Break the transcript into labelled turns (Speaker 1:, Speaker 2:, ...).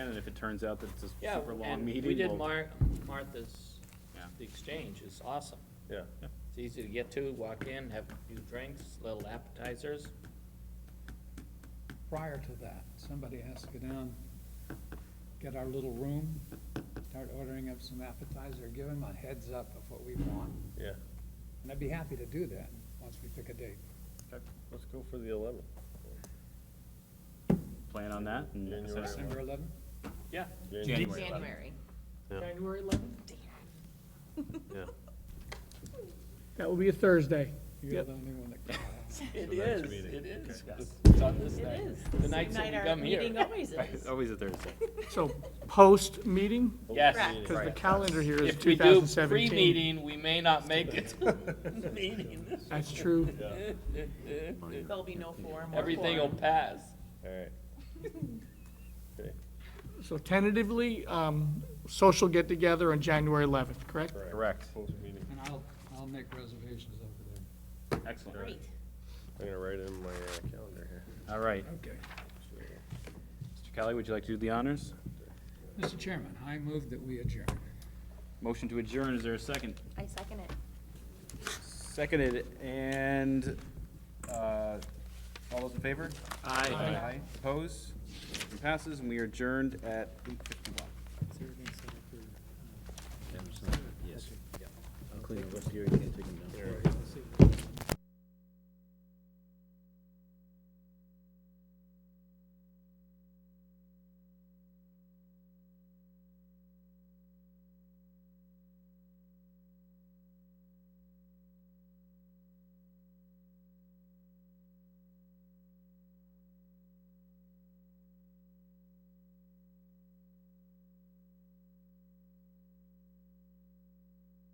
Speaker 1: if it turns out that it's a
Speaker 2: Yeah,
Speaker 1: super long
Speaker 2: and
Speaker 1: meeting.
Speaker 2: we did
Speaker 1: we'll-
Speaker 2: Mar- Martha's,
Speaker 1: Yeah.
Speaker 2: the exchange, it's awesome.
Speaker 3: Yeah.
Speaker 2: It's easy to get to, walk in, have a few drinks, little appetizers.
Speaker 4: prior to that, somebody has to go down, get our little room, start ordering up some appetizer, give them a heads up of what we want.
Speaker 3: Yeah,
Speaker 4: And I'd be happy to do that, once we pick a date.
Speaker 1: Okay,
Speaker 3: let's go for the eleventh.
Speaker 1: Plan on that? and-
Speaker 3: January.
Speaker 4: December eleventh?
Speaker 1: Yeah.
Speaker 3: January.
Speaker 5: January.
Speaker 2: January eleventh?
Speaker 3: Yeah.
Speaker 6: That will be a Thursday.
Speaker 4: You're the only one that can.
Speaker 2: It
Speaker 3: The next
Speaker 2: is,
Speaker 3: meeting.
Speaker 2: it is.
Speaker 1: Okay.
Speaker 2: It's on this
Speaker 5: It
Speaker 2: night.
Speaker 5: is.
Speaker 2: The night that we
Speaker 5: our
Speaker 2: come here.
Speaker 5: Meeting always
Speaker 1: Right,
Speaker 5: is.
Speaker 1: Always a Thursday.
Speaker 6: So post-meeting,
Speaker 2: Yes.
Speaker 5: Correct.
Speaker 6: because the calendar here is
Speaker 2: If we do
Speaker 6: 2017.
Speaker 2: pre-meeting, we may not make it. Meeting.
Speaker 6: That's true.
Speaker 5: There'll be no form or
Speaker 2: Everything will
Speaker 5: quorum.
Speaker 2: pass.
Speaker 3: All right. Okay,
Speaker 6: So tentatively, um, social get-together on January 11th, correct?
Speaker 1: Correct.
Speaker 3: Close meeting.
Speaker 4: And I'll, I'll make reservations over there.
Speaker 1: Excellent.
Speaker 5: Great.
Speaker 3: I'm gonna write it in my uh, calendar here.
Speaker 1: All right.
Speaker 4: Okay.
Speaker 1: Mr. Kelly, would you like to do the honors?
Speaker 4: Mr. Chairman, I move that we adjourn.
Speaker 1: Motion to adjourn, is there a second?
Speaker 5: I second it.
Speaker 1: Seconded, and, uh, all those in favor? Aye. Aye. Opposed? Motion passes, and we are adjourned at eight fifty-one.
Speaker 7: Including West Erie, can't take them down.